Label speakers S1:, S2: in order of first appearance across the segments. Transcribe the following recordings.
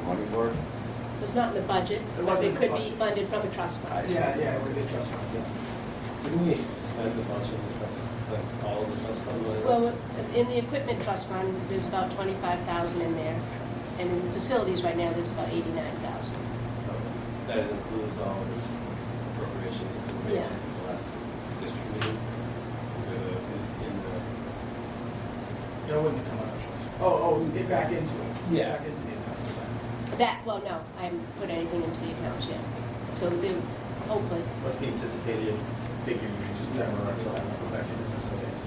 S1: county board?
S2: It was not in the budget,
S1: It
S2: but
S1: wasn't in
S2: it
S1: the
S2: could be
S1: budget.
S2: funded from a trust fund.
S1: Yeah, yeah, it would be trust fund, yeah.
S3: Didn't we spend a bunch of the trust, like all of the trust fund money?
S2: Well, in the equipment trust fund, there's about twenty-five thousand in there, and in facilities right now, there's about eighty-nine thousand.
S3: That includes all of this appropriations that we made
S2: Yeah.
S3: in the last district meeting. uh, in- in the-
S4: It wouldn't come out of trust.
S1: Oh, oh, get back into it.
S3: Yeah.
S1: Back into the accounts.
S2: That, well, no, I haven't put anything into the accounts yet, so they, hopefully,
S4: What's the anticipated figure you should spend on October back into facilities?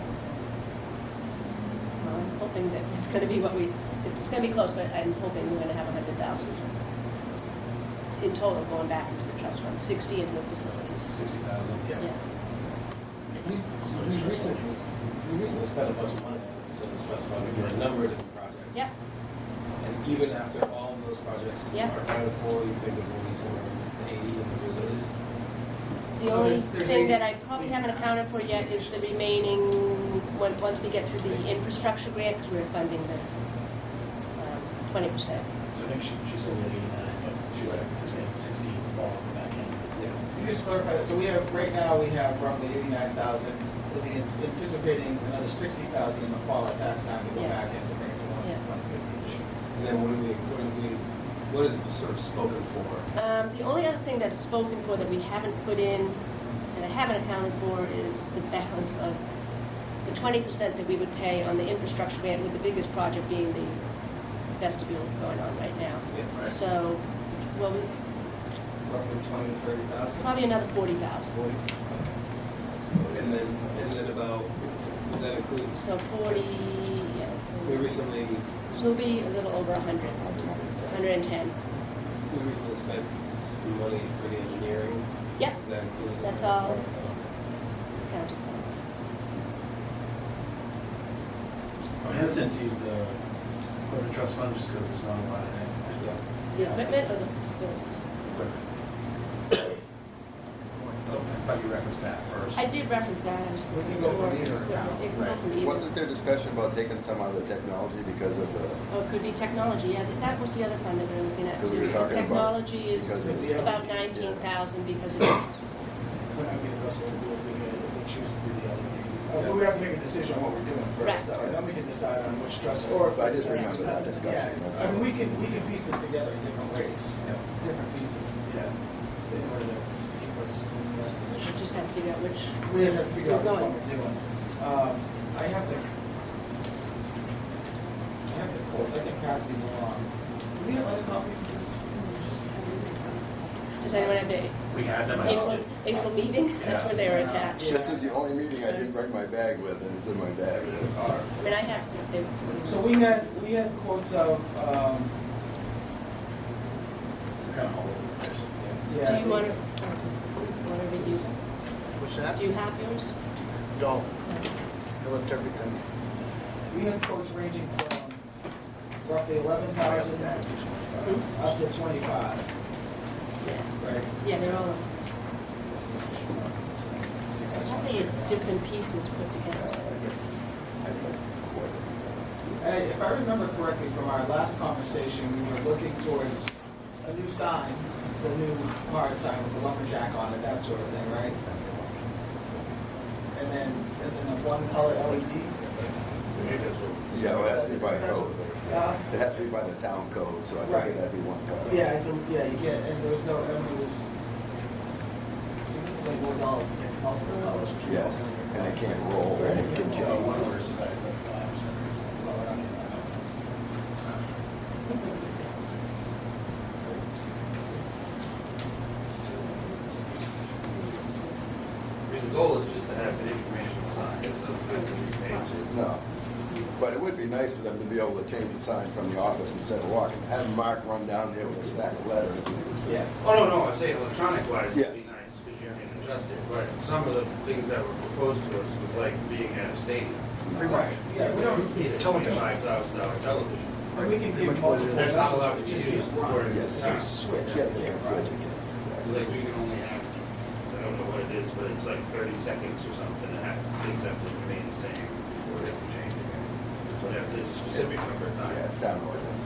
S2: well, I'm hoping that it's gonna be what we, it's gonna be close, but I'm hoping we're gonna have a hundred thousand in total going back into the trust fund, sixty in the facilities.
S4: Sixty thousand.
S2: Yeah,
S3: We we recently, we recently spent a bunch of money on the civil trust fund for a number of different projects.
S2: Yep.
S3: And even after all of those projects
S2: Yep.
S3: are accounted for, you think there's only somewhere around eighty in the facilities?
S2: The
S1: Well,
S2: only
S1: there's- there's
S2: thing
S1: eight-
S2: that I probably
S1: eight.
S2: haven't accounted for yet is the remaining, when- once we get through the infrastructure grant, because we're funding the twenty percent.
S4: I think she, she's only eighty-nine, but she's like, it's been sixty fall back in.
S3: Yeah.
S1: Can you just clarify that? So we have, right now, we have roughly eighty-nine thousand, we'll be anticipating another sixty thousand in the fall of tax time to go
S2: Yeah.
S1: back in to bring it to one,
S2: Yeah.
S1: one fifty.
S3: And then what do we, what do we, what is sort of spoken for?
S2: Um, The only other thing that's spoken for that we haven't put in, that I haven't accounted for, is the balance of the twenty percent that we would pay on the infrastructure grant, with the biggest project being the vestibule going on right now.
S3: Yeah,
S1: right.
S2: So, well, we-
S1: Roughly twenty to thirty thousand.
S2: probably another forty thousand.
S1: Forty.
S3: And then, and then about, does that include,
S2: So forty, yes.
S3: we recently,
S2: It'll be a little over 100, 110.
S3: we recently spent some money for the engineering.
S2: Yep,
S3: Does that include?
S2: That's all. accounted
S4: I'm hesitant to use the corporate trust fund just because there's not a lot in it.
S3: Yeah.
S2: for. The equipment or the facilities?
S4: So I thought you referenced that first.
S2: I did reference that, I just.
S1: We can go from either account,
S2: It can go from either.
S5: Wasn't there discussion about taking some out of the technology because of the,
S2: Or Oh, it could be technology, yeah, that- that was the other fund that we were looking at
S5: That we
S2: too.
S5: were
S2: The
S5: talking about,
S2: Technology
S5: because
S2: is
S1: it's- yeah.
S2: about 19,000 because it is,
S4: We're not getting Russell to do if we, if we choose to do the other
S1: Uh, but we have to make a decision on what we're doing
S2: Right.
S1: first, though, and then we can decide on which trust, or if.
S5: I just remember that discussion, that's
S1: Yeah, I mean, we can, we can piece this together in different ways,
S4: Yeah.
S1: different pieces,
S4: Yeah.
S1: to- in order to to keep us in the best
S2: we
S1: position.
S2: just have to figure out which.
S1: We have to figure out which one
S2: Going.
S1: we're doing. Um, I have the, I have the quotes, I can pass these along. Do we have other copies of this? Mm-hmm.
S2: Does anyone have the
S4: We had them, I just
S2: April,
S4: did.
S2: April meeting? That's
S4: Yeah.
S2: where they were
S1: Yeah.
S2: attached.
S5: this is the only meeting I didn't bring my bag with, and it's in my bag in the car.
S2: I mean, I have, they.
S1: So we had, we had quotes of, um,
S4: We're kind of all over the place.
S1: yeah.
S2: Do you want to, want to review? What's that? Do you have yours?
S6: No, I left everything.
S1: We had quotes ranging from roughly eleven thousand up to twenty-five,
S2: Yeah,
S1: right?
S2: yeah, they're all,
S1: This is-
S2: I think it's different pieces put together.
S1: And I- if I remember correctly from our last conversation, we were looking towards a new sign, the new hard sign with the lumberjack on it, that sort of thing, right? And then, and then a one color E LED.
S5: Yeah, well, it has to be by code.
S1: Yeah.
S5: It has to be by the town code, so I
S1: Right.
S5: think it had to be one code.
S1: Yeah, it's a, yeah, you get, and there was no, and it was significantly more dollars to get multiple colors. which was
S5: Yes,
S1: also-
S5: and it can't roll, and it can
S4: One of
S5: jump.
S4: those is like five, so it's lower on the-
S7: I mean, the goal is just to have an informational sign, it doesn't have to be pages.
S5: No. But it would be nice for them to be able to change the sign from the office instead of walking. Have Mark run down there with a stack of letters.
S1: Yeah,
S7: Oh, no, no, I say electronic wise, it'd be
S5: Yes.
S7: nice, because you can adjust it, but some of the things that were proposed to us was like being at a stadium.
S1: pretty much, yeah,
S7: We
S1: we don't,
S7: don't need a
S6: Television.
S7: twenty-five thousand dollar television.
S1: and we can
S6: Pretty
S1: give
S6: much what it
S1: multiple.
S6: is.
S7: That's not allowed
S1: colors,
S7: to
S1: just
S7: use
S1: give
S7: for
S1: one.
S7: the
S5: Yes.
S7: sign.
S1: Switch.
S5: Yeah, they can switch.
S7: It's Like, we can only have, I don't know what it is, but it's like thirty seconds or something, to have things have to remain the same, or if we change it. So they have to, it's a specific number of
S5: Yeah,
S7: times.
S5: it's down.